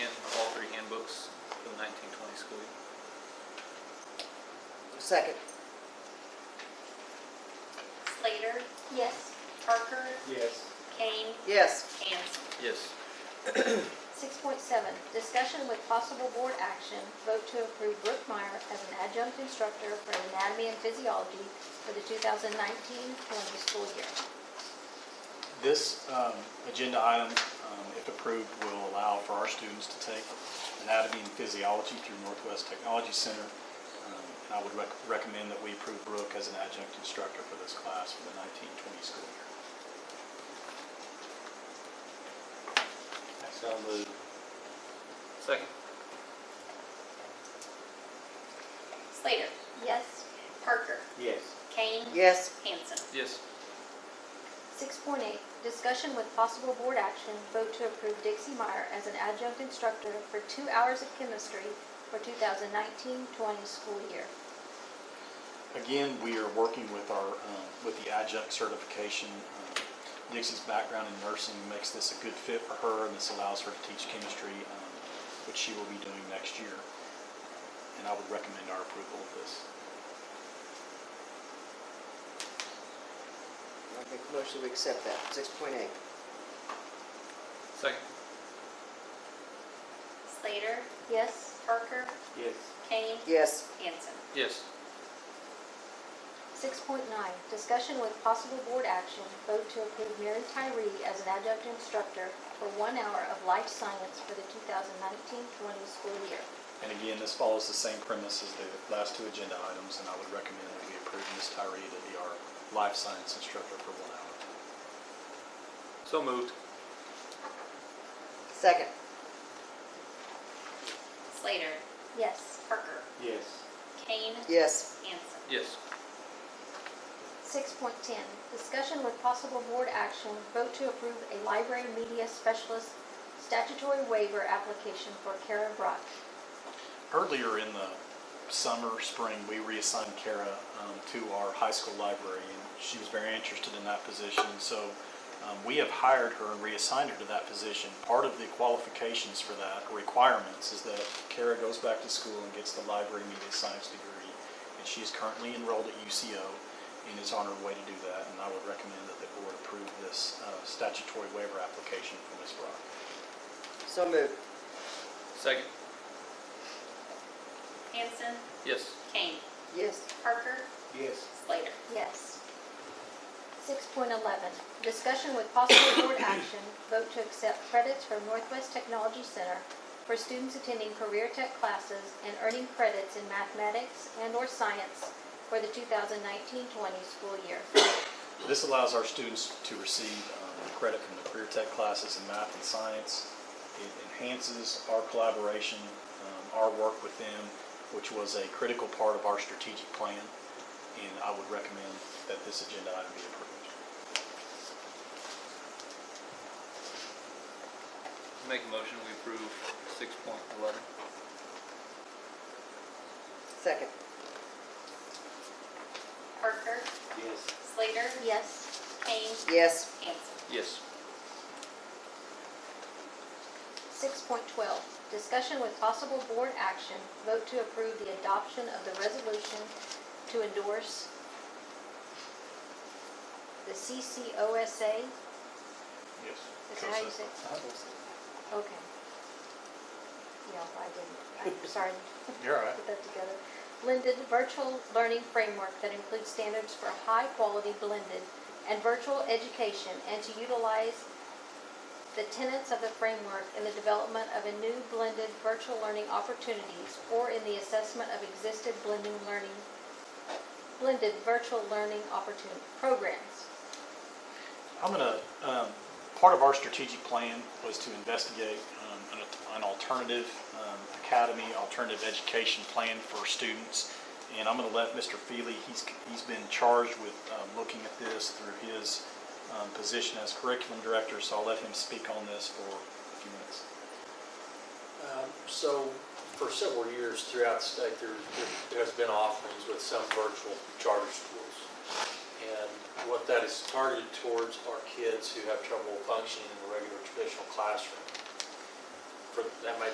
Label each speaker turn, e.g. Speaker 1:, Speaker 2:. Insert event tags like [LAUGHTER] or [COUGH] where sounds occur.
Speaker 1: Second.
Speaker 2: Slater,
Speaker 3: Yes.
Speaker 2: Parker,
Speaker 4: Yes.
Speaker 2: Kane,
Speaker 1: Yes.
Speaker 2: Hanson.
Speaker 4: Yes.
Speaker 3: 6.7, discussion with possible board action, vote to approve Brooke Meyer as an adjunct instructor for anatomy and physiology for the 2019-20 school year.
Speaker 5: This um, agenda item, um, if approved, will allow for our students to take anatomy and physiology through Northwest Technology Center. Um, And I would rec- recommend that we approve Brooke as an adjunct instructor for this class for the 1920 school year.
Speaker 4: So moved. Second.
Speaker 2: Slater,
Speaker 3: Yes.
Speaker 2: Parker,
Speaker 4: Yes.
Speaker 2: Kane,
Speaker 1: Yes.
Speaker 2: Hanson.
Speaker 4: Yes.
Speaker 3: 6.8, discussion with possible board action, vote to approve Dixie Meyer as an adjunct instructor for two hours of chemistry for 2019-20 school year.
Speaker 5: Again, we are working with our, um, with the adjunct certification. Um, Dixie's background in nursing makes this a good fit for her, and this allows her to teach chemistry, um, which she will be doing next year. And I would recommend our approval of this.
Speaker 1: I make a motion to accept that, 6.8.
Speaker 4: Second.
Speaker 2: Slater,
Speaker 3: Yes.
Speaker 2: Parker,
Speaker 4: Yes.
Speaker 2: Kane,
Speaker 1: Yes.
Speaker 2: Hanson.
Speaker 4: Yes.
Speaker 3: 6.9, discussion with possible board action, vote to approve Mary Tyree as an adjunct instructor for one hour of life science for the 2019-20 school year.
Speaker 5: And again, this follows the same premise as the last two agenda items, and I would recommend that we approve Ms. Tyree to be our life science instructor for one hour.
Speaker 4: So moved.
Speaker 1: Second.
Speaker 2: Slater,
Speaker 3: Yes.
Speaker 2: Parker,
Speaker 4: Yes.
Speaker 2: Kane,
Speaker 1: Yes.
Speaker 2: Hanson.
Speaker 4: Yes.
Speaker 3: 6.10, discussion with possible board action, vote to approve a library media specialist statutory waiver application for Kara Brock.
Speaker 5: Earlier in the summer, spring, we reassigned Kara um, to our high school library, and she was very interested in that position. And so um, we have hired her and reassigned her to that position. Part of the qualifications for that, or requirements, is that Kara goes back to school and gets the library media science degree. And she is currently enrolled at UCO and is on her way to do that. And I would recommend that the board approve this uh, statutory waiver application for Ms. Brock.
Speaker 1: So moved.
Speaker 4: Second.
Speaker 2: Hanson,
Speaker 4: Yes.
Speaker 2: Kane,
Speaker 1: Yes.
Speaker 2: Parker,
Speaker 4: Yes.
Speaker 2: Slater.
Speaker 3: Yes. 6.11, discussion with possible [COUGHS] board action, vote to accept credits from Northwest Technology Center for students attending career tech classes and earning credits in mathematics and/or science for the 2019-20 school year.
Speaker 5: This allows our students to receive um, credit from the career tech classes in math and science. It enhances our collaboration, um, our work with them, which was a critical part of our strategic plan, and I would recommend that this agenda item be approved.
Speaker 6: Make a motion, we approve six point eleven.
Speaker 1: Second.
Speaker 2: Parker,
Speaker 4: Yes.
Speaker 2: Slater,
Speaker 3: Yes.
Speaker 2: Kane,
Speaker 1: Yes.
Speaker 2: Hanson.
Speaker 6: Yes.
Speaker 3: 6.12, discussion with possible board action, vote to approve the adoption of the resolution to endorse the CCOSA
Speaker 5: Yes.
Speaker 3: Is that how you say it? Okay. Yeah, I didn't, I'm sorry to
Speaker 5: You're all right.
Speaker 3: put that together. Blended virtual learning framework that includes standards for high-quality blended and virtual education and to utilize the tenets of the framework in the development of a new blended virtual learning opportunities or in the assessment of existed blending learning, blended virtual learning opportunity, programs.
Speaker 5: I'm gonna, um, part of our strategic plan was to investigate, um, an, an alternative, um, academy, alternative education plan for students. And I'm gonna let Mr. Feely, he's, he's been charged with, um, looking at this through his, um, position as curriculum director, so I'll let him speak on this for a few minutes.
Speaker 7: Um, So for several years throughout the state, there there has been offerings with some virtual charter schools. And what that is targeted towards are kids who have trouble functioning in the regular traditional classroom. For- That may